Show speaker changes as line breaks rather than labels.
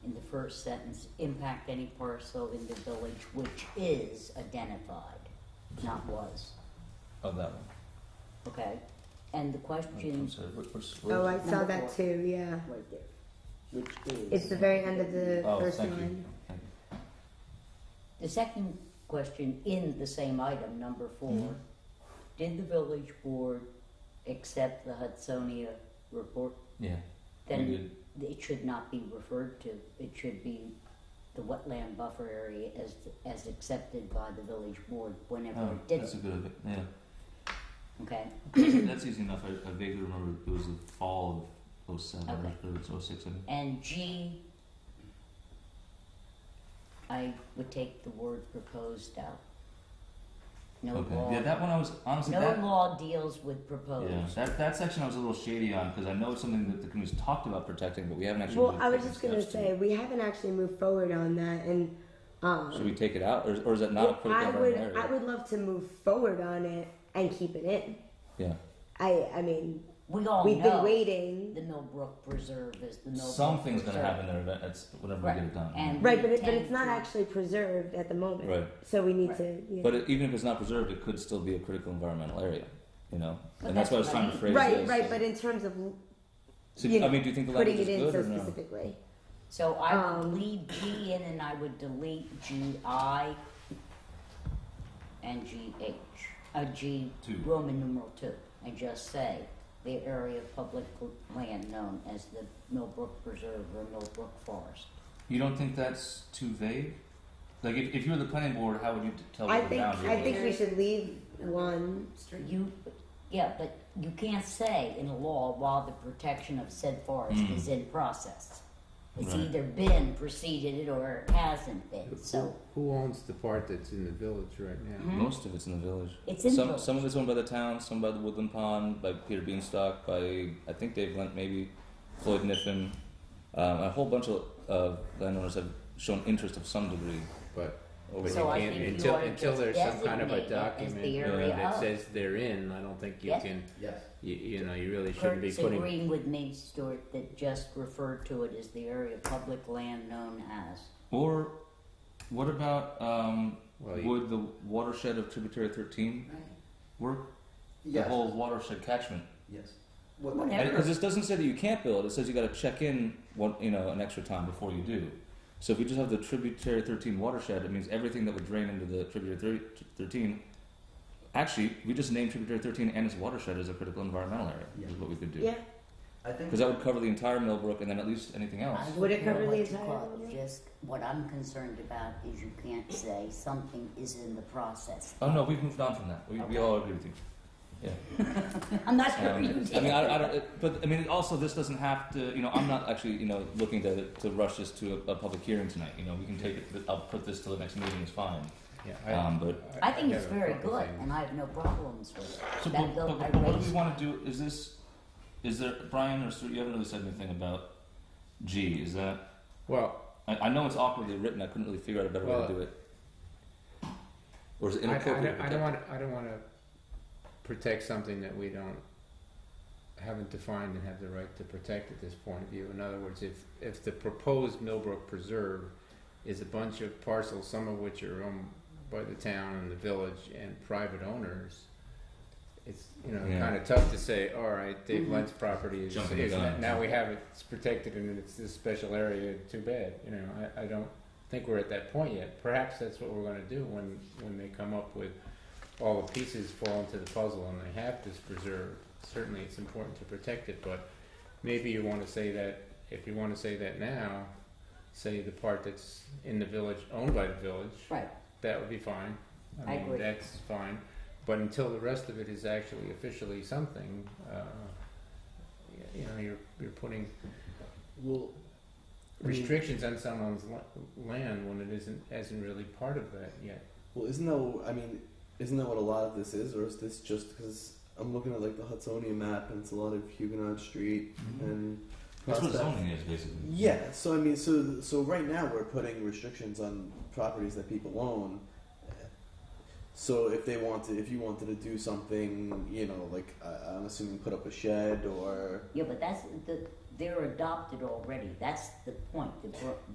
first sentence, impact any parcel in the village which is identified, not was,
of that one.
okay? And the
I'm
question,
sorry, what- what's-
Oh,
where's-
I saw
Number
that
four.
too, yeah.
right there, which
It's
is.
the very end of the
Oh,
first
thank you.
line.
Thank you.
The second question in the same item, number four,
Mm-hmm.
did the village board accept the Hudsonia report?
Yeah.
Then
we did.
it should not be referred to, it should be the wetland buffer area as, as accepted by the village board whenever
Oh,
it did
that's a
it,
good. idea. Yeah.
okay?
that's easy enough. I, I vaguely remember it was the fall of 07
Okay.
or oh it was 06. I mean.
And G, I would take the word proposed out. No
Okay.
law,
Yeah, that one I was honestly
no
that
law deals with proposed.
yeah, that, that section I was a little shady on because I know it's something that the community's talked about protecting, but we haven't actually.
Well,
really
I was
taken
just gonna
steps to-
say, we haven't actually moved forward on that and, um.
Should we take it out, or, or is that not
well,
a critical
I
part of
would,
our area?
I would love to move forward on it and keep it in.
Yeah.
I, I mean,
We
Oh,
all
we've
know
been waiting.
the Millbrook Preserve is the Millbrook
Something's gonna
Preserve.
happen there. event- It's whenever
Right.
we get it done.
And-
Right, but it, but it's
Thank
not
you.
actually preserved at the moment.
Right.
So we need
Right.
to, yeah.
But it, even if it's not preserved, it could still be a critical environmental area. You know,
But
and that's,
that's
what I was
what I
trying to
mean.
phrase.
Right,
this.
right, but in terms of
So,
you
I
know,
mean, do you think the
putting
language
it
is good
in so
or no?
specifically.
So I would
Um,
leave G in and I would delete G I and G H. Uh, G
Two.
Roman numeral two and just say the area of public land known as the Millbrook Preserve or Millbrook Forest.
You don't think that's too vague? Like, if, if you were the planning board, how would you t- tell
I
what the
think,
boundary
I
was?
think we should leave one.
You yeah, but you can't say in a law while the protection of said forest
Mm.
is in process. It's
Right.
either been preceded or it hasn't been. So
Who who owns the part that's in the village right now?
Hmm?
Most of it's in the village.
it's in
some
village.
some of it's owned by the town, some by the Woodland Pond, by Peter Beanstalk, by I think Dave Lent, maybe Floyd Niffen. Um, a whole bunch of uh, landowners have shown interest of some degree.
But
Over
but
So I
you can't
think you
until
ought to
until
just
there's some kind
designate
of
it
a
as the
document uh,
area
that
of.
says they're in. I don't think you
Yes.
can.
Yes.
You, you know, you really shouldn't be
Kurt's
putting.
agreeing with me, Stuart, that just referred to it as the area of public land known as.
Or what about um,
Well, you-
would the watershed of Tributary 13 work?
Yes.
The whole watershed catchment.
yes. What-
Whatever.
Because this doesn't say that you can't build. It says you got to check in one, you know, an extra time before you do. So if we just have the tributary 13 watershed, it means everything that would drain into the tributary thir- 13. Actually, we just name tributary 13 and its watershed as a critical environmental area. Is
Yeah.
what we could do.
Yeah,
I think
Because that would cover the entire Millbrook and then at least anything else.
I
Would
don't
it cover
know
the
what to
entire
call it,
building?
Just, what I'm concerned about is you can't say something is in the process.
Oh no, we've moved on from that. We, we all agree with you.
I'm not sure you
Um,
did.
I mean, I, I don't. It, but I mean, also, this doesn't have to. You know, I'm not actually, you know, looking to to rush this to a, a public hearing tonight. You know, we can take it. I'll put this till the next meeting. It's fine.
Yeah,
Um, but
I think
have
it's
a
very
couple
good,
things.
and I have no problems with it.
So,
That
but,
bill,
but,
I
but what do
raised-
we want to do? Is this, is there, Brian or Stuart, you haven't really said anything about G. Is that,
Well,
I, I know it's awkwardly written, I couldn't really figure out a better way
Well,
to do it. Or is it
I, I, don't,
inappropriate? to
I don't
protect-
want. I don't want to protect something that we don't haven't defined and have the right to protect at this point of view. In other words, if if the proposed Millbrook Preserve is a bunch of parcels, some of which are owned by the town and the village and private owners. It's you know
Yeah.
kind of tough to say. All right, Dave
Mhm.
Lent's property is,
Jumping the
is
gun.
now we have it, it's protected and it's this special area. Too bad, you know. I, I don't think we're at that point yet. Perhaps that's what we're going to do when when they come up with all the pieces fall into the puzzle and they have this preserve. Certainly, it's important to protect it, but maybe you want to say that if you want to say that now, say the part that's in the village owned by the village.
Right,
That would be fine.
I
I mean,
agree.
that's fine. But until the rest of it is actually officially something, uh, y- you know, you're, you're putting
we'll, I mean-
restrictions on someone's la- land when it isn't, isn't really part of that yet.
Well, isn't that? I mean, isn't that what a lot of this is, or is this just because I'm looking at like the Hudsonia map and it's a lot of Huguenot Street and
Mm-hmm. That's what
Prospect.
zoning is, basically.
Yeah. So I mean, so so right now we're putting restrictions on properties that people own. So if they wanted, if you wanted to do something, you know, like uh, I'm assuming put up a shed or
yeah, but that's, the, they're adopted already, that's the point, the, bro-